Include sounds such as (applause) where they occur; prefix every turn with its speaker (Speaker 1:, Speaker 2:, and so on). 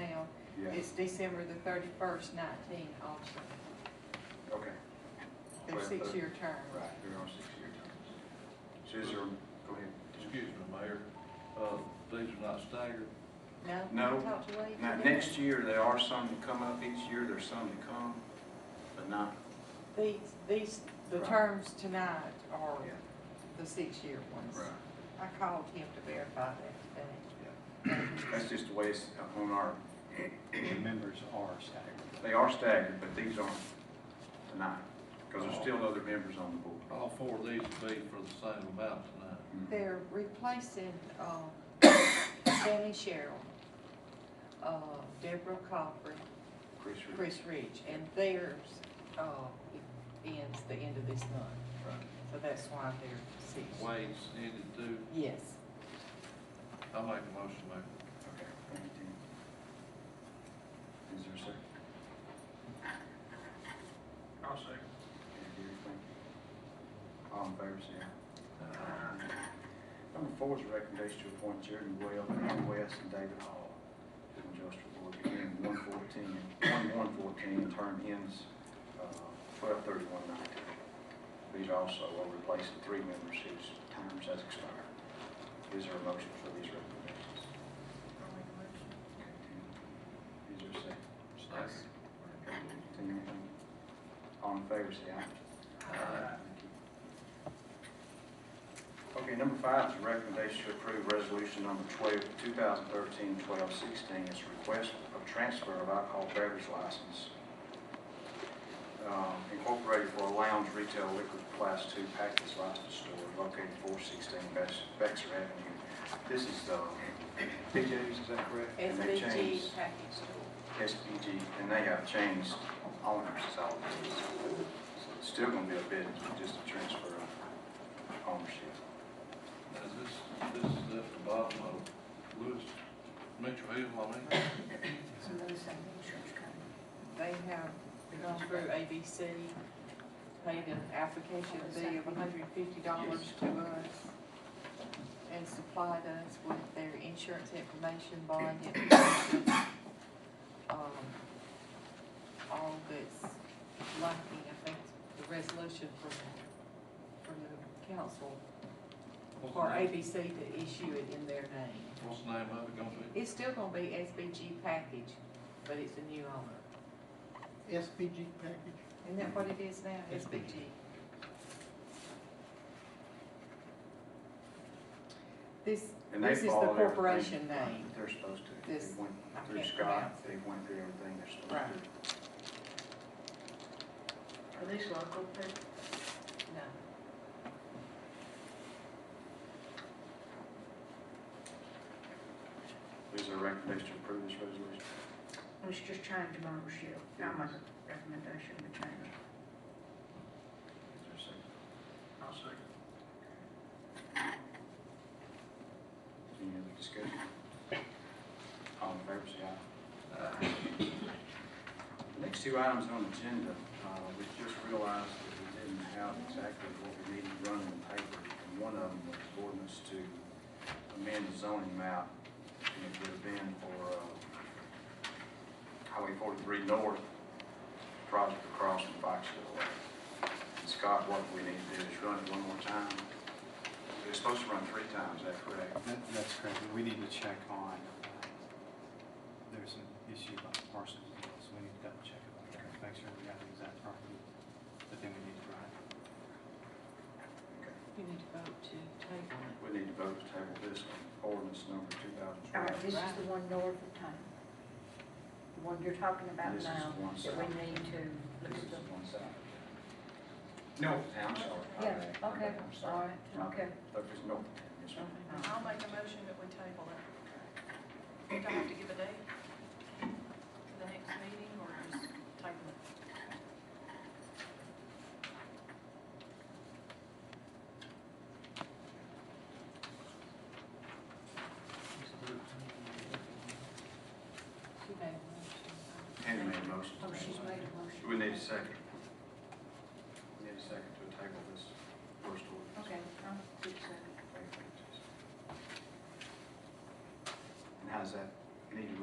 Speaker 1: Yeah,
Speaker 2: It's December the thirty-first, nineteen also.
Speaker 1: okay,
Speaker 2: They're
Speaker 1: Right, but-
Speaker 2: six-year terms.
Speaker 1: right, they're on six-year terms. So is there, go ahead.
Speaker 3: Excuse me, Mayor, uh, these are not staggered.
Speaker 2: No?
Speaker 1: No.
Speaker 2: Talk to Lee.
Speaker 1: Now, next year, there are some that come up each year, there's some that come, but not,
Speaker 2: These, these, the
Speaker 1: Right.
Speaker 2: terms tonight are
Speaker 1: yeah,
Speaker 2: the six-year ones.
Speaker 1: right.
Speaker 2: I called him to verify that
Speaker 1: That's just the way it's on our,
Speaker 4: The members are staggered.
Speaker 1: they are staggered, but these aren't tonight, because there's still other members on the board. Mm-hmm.
Speaker 3: All four of these would be for the same amount tonight.
Speaker 2: today. They're replacing, um, Danny Sherrill, uh, Deborah Coffey,
Speaker 1: Chris Reed.
Speaker 2: Chris Rich, and theirs, uh, ends the end of this month.
Speaker 1: Right.
Speaker 2: So that's why they're six.
Speaker 3: Wade's ended too.
Speaker 2: Yes.
Speaker 3: I make a motion, Mayor.
Speaker 1: Okay, thank you, Tim. Is there a second? I'll second. thank you. All in favor, say aye. Number four is a recommendation to appoint Jeremy Well, Ron West, and David Hall to the industrial board beginning one fourteen, one one fourteen, term ends uh, twelve thirty-one nineteen. These also will replace the three members whose terms has expired. Is there a motion for these recommendations? Is there a second? Continue. All in favor, say aye. Okay, number five is a recommendation to approve resolution number 12, 2013, 1216. It's a request of transfer of alcohol beverage license um, incorporated for a lounge retail liquor class two package license store located 416 Bex- Bexar Avenue. This is, uh, (clears throat) PJ's, is that correct? And they
Speaker 2: SBG
Speaker 1: changed-
Speaker 2: package store.
Speaker 1: SPG, and they have changed owners, it's all business. So it's still gonna be a business, but just a transfer of ownership.
Speaker 3: Now, is this, this is at the bottom of Lewis, Mitchell Hill, I mean?
Speaker 2: They have gone through ABC, paid an application fee of hundred and fifty dollars to us, and supplied us with their insurance information, bond information, um, all that's lacking, I think, the resolution from, from the council
Speaker 3: What's
Speaker 2: for
Speaker 3: the name-
Speaker 2: ABC to issue it in their name.
Speaker 3: What's the name of it gonna be?
Speaker 2: It's still gonna be SBG package, but it's a new owner.
Speaker 4: SPG package?
Speaker 2: Isn't that what it is now, SBG? This,
Speaker 1: And they
Speaker 2: this is the
Speaker 1: follow everything
Speaker 2: corporation name.
Speaker 1: They're supposed to. They
Speaker 2: This-
Speaker 1: went
Speaker 2: I
Speaker 1: through
Speaker 2: can't
Speaker 1: Scott,
Speaker 2: pronounce
Speaker 1: they went through everything they're
Speaker 2: Right.
Speaker 1: supposed to. do.
Speaker 5: Are these local people?
Speaker 2: No.
Speaker 1: Is there a recommendation to approve this resolution?
Speaker 5: I was just trying to ownership. Now my recommendation to change.
Speaker 1: Is there a second?
Speaker 5: I'll second.
Speaker 1: Any other discussion? All in favor, say aye.
Speaker 3: Uh,
Speaker 1: The Next two items on the agenda, uh, we just realized that we didn't have exactly what we needed running in paper. And one of them was ordinance to amend the zoning map, and it would have been for uh, Highway 43 North, project across from Foxville Way. And Scott, what we need to do is run it one more time. It's supposed to run three times, is that correct?
Speaker 4: That, that's correct, we need to check on, uh, there's an issue about parcels, so we need to double check about that, make sure we got the exact property, but then we need to run it.
Speaker 2: You need to vote to table it.
Speaker 1: We need to vote to table this one, ordinance number 2012.
Speaker 5: All right, Ah, this is the one north of town. The one you're talking about
Speaker 1: This is
Speaker 5: now,
Speaker 1: the one
Speaker 5: that we
Speaker 1: south.
Speaker 5: need to look
Speaker 1: This is
Speaker 5: at the.
Speaker 1: one side. No, I'm sorry. my
Speaker 5: Yeah,
Speaker 1: bad, my
Speaker 5: okay,
Speaker 1: bad, I'm
Speaker 5: all
Speaker 1: sorry.
Speaker 5: right,
Speaker 1: My
Speaker 5: okay.
Speaker 1: bad. Look, there's no, yes, ma'am.
Speaker 5: Oh,
Speaker 6: I'll make a motion that we table it. Do I have to give a date for the next meeting or just table it?
Speaker 2: She made a motion.
Speaker 1: Hannah made a motion.
Speaker 5: Oh, she's made a motion.
Speaker 1: We need a second. We need a second to table this first ordinance.
Speaker 5: Okay, I'll do second.
Speaker 1: Thank you, Jesus. And how's that, need to